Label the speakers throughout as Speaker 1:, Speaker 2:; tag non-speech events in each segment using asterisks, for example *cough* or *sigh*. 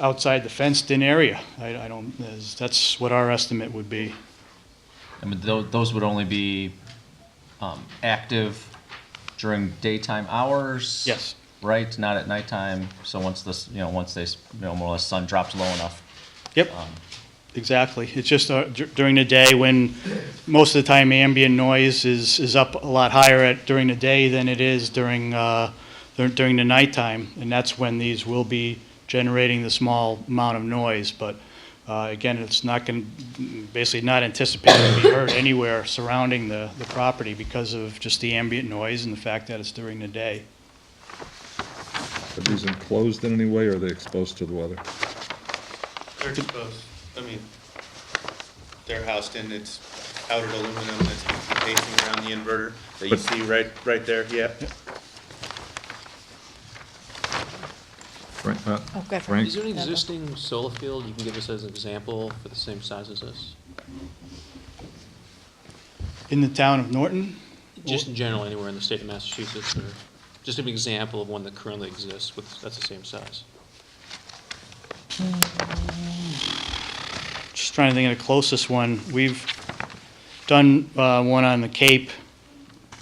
Speaker 1: outside the fenced-in area. I, I don't, there's- that's what our estimate would be.
Speaker 2: I mean, tho- those would only be um, active during daytime hours?
Speaker 1: Yes.
Speaker 2: Right, not at nighttime, so once this, you know, once they, s- you know, more or less sun drops low enough.
Speaker 1: Yep, exactly. It's just uh, dur- during the day when most of the time ambient noise is, is up a lot higher at, during the day than it is during, uh, dur- during the nighttime. And that's when these will be generating the small amount of noise. But uh, again, it's not going, basically not anticipated to be heard anywhere surrounding the, the property because of just the ambient noise and the fact that it's during the day.
Speaker 3: Are these enclosed in any way, or are they exposed to the weather?
Speaker 4: They're exposed, I mean, they're housed in, it's powdered aluminum that's facing around the inverter that you
Speaker 3: But-
Speaker 4: see right, right there, yeah.
Speaker 3: Frank, Pat?
Speaker 5: Oh, good.
Speaker 3: Frank?
Speaker 6: Is there an existing solar field you can give us as an example for the same size as this?
Speaker 1: In the town of Norton,
Speaker 6: Just in general, anywhere in the state of Massachusetts, or just an example of one that currently exists with, that's the same size?
Speaker 1: just trying to think of the closest one. We've done uh, one on the Cape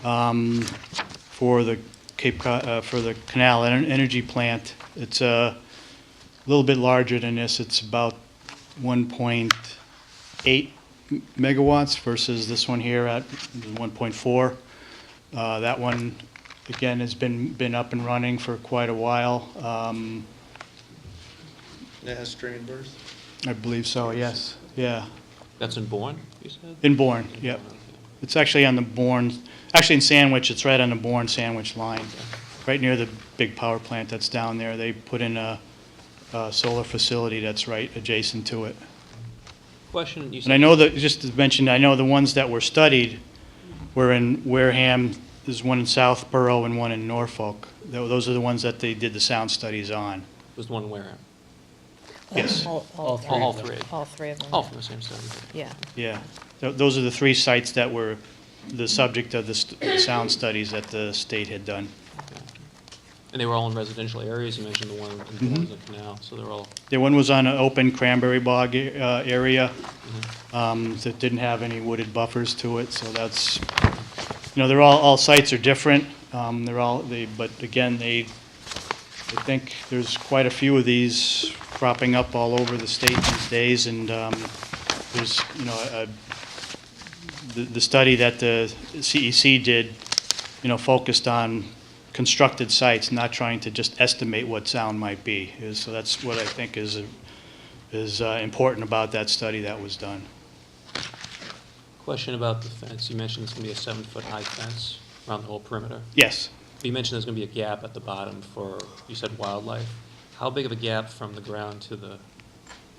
Speaker 1: um, for the Cape, Co- uh, for the Canal Ener- Energy Plant. It's uh, a little bit larger than this. It's about 1.8 megawatts versus this one here at 1.4. Uh, That one, again, has been, been up and running for quite a while. Um,
Speaker 4: And It has string inverters.
Speaker 1: I believe so, yes, yeah.
Speaker 6: That's in Bourne, you said?
Speaker 1: In Bourne, yep. It's actually on the Bourne, actually in Sandwich, it's right on the Bourne Sandwich line, right near the big power plant that's down there. They put in a, a solar facility that's right adjacent to it.
Speaker 6: Question, you said.
Speaker 1: And I know that, just to mention, I know the ones that were studied were in Wareham, there's one in Southborough and one in Norfolk. Tho- Those are the ones that they did the sound studies on.
Speaker 6: Was the one in Wareham?
Speaker 1: Yes.
Speaker 5: All
Speaker 6: All
Speaker 5: three. Oh.
Speaker 6: all three.
Speaker 5: All three of them.
Speaker 6: All from the same study.
Speaker 5: Yeah.
Speaker 1: Yeah, Tho- those are the three sites that were the subject of the st- sound studies that the state had done.
Speaker 6: And they were all in residential areas, you mentioned the one
Speaker 1: Mm-hmm.
Speaker 6: in Bourne, the canal, so they're all,
Speaker 1: The one was on an open cranberry bog uh, area um, that didn't have any wooded buffers to it, so that's, you know, they're all, all sites are different. um, They're all, they, but again, they, I think there's quite a few of these cropping up all over the state these days, and um, there's, you know, a- the, the study that the CEC did, you know, focused on constructed sites, not trying to just estimate what sound might be. Is- So that's what I think is, is uh, important about that study that was done.
Speaker 6: question about the fence, you mentioned it's gonna be a seven-foot-high fence around the whole perimeter.
Speaker 1: Yes,
Speaker 6: You mentioned there's gonna be a gap at the bottom for, you said wildlife. How big of a gap from the ground to the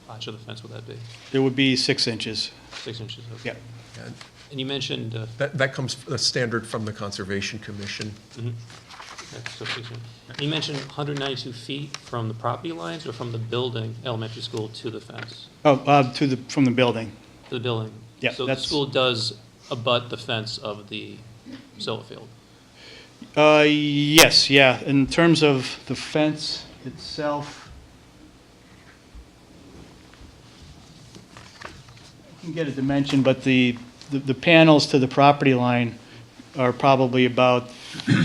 Speaker 6: notch of the fence would that be?
Speaker 1: it would be six inches.
Speaker 6: Six inches? okay.
Speaker 1: Yeah.
Speaker 6: And you mentioned, uh,
Speaker 7: That, that comes a standard from the Conservation Commission.
Speaker 6: okay, so six inches. you mentioned 192 feet from the property lines or from the building, elementary school, to the fence?
Speaker 1: Oh, uh, to the, from the building.
Speaker 6: To the building?
Speaker 1: Yeah,
Speaker 6: So the
Speaker 1: that's-
Speaker 6: school does abut the fence of the solar field?
Speaker 1: Uh, yes, yeah, in terms of the fence itself. I can get a dimension, but the, the- the panels to the property line are probably about *coughs* a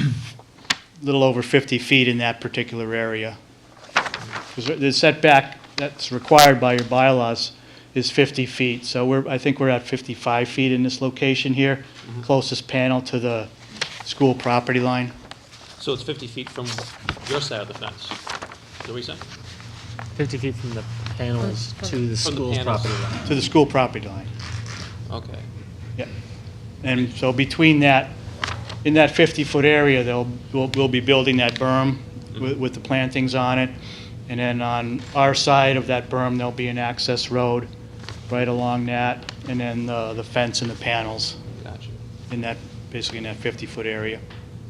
Speaker 1: little over 50 feet in that particular area. Because the setback that's required by your bylaws is 50 feet, so we're, I think we're at 55 feet in this location here, closest panel to the school property line.
Speaker 6: So it's 50 feet from your side of the fence? Is that what you said?
Speaker 8: 50 feet from the panels to the
Speaker 6: From the
Speaker 8: school's
Speaker 6: panels.
Speaker 8: property line.
Speaker 1: to the school property line.
Speaker 6: Okay.
Speaker 1: Yeah. And so between that, in that 50-foot area, they'll, we'll, we'll be building that berm with,
Speaker 6: Mm-hmm.
Speaker 1: with the plantings on it. And then on our side of that berm, there'll be an access road right along that, and then uh, the fence and the panels
Speaker 6: Gotcha.
Speaker 1: in that, basically in that 50-foot area.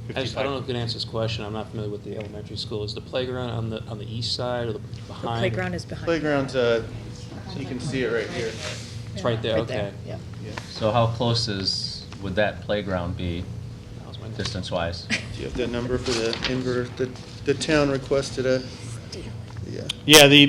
Speaker 6: I just- I
Speaker 1: 55.
Speaker 6: don't know if you can answer this question, I'm not familiar with the elementary school. Is the playground on the, on the east side or the
Speaker 5: The
Speaker 6: behind?
Speaker 5: playground is behind.
Speaker 4: Playground's, uh, you can see it right here.
Speaker 6: It's right there,
Speaker 5: Right there,
Speaker 6: okay.
Speaker 5: yeah.
Speaker 2: So how close is, would that playground be
Speaker 6: That was my next-
Speaker 2: distance-wise?
Speaker 4: Do you have the number for the inverter? The, the town requested a, yeah.
Speaker 1: Yeah, the,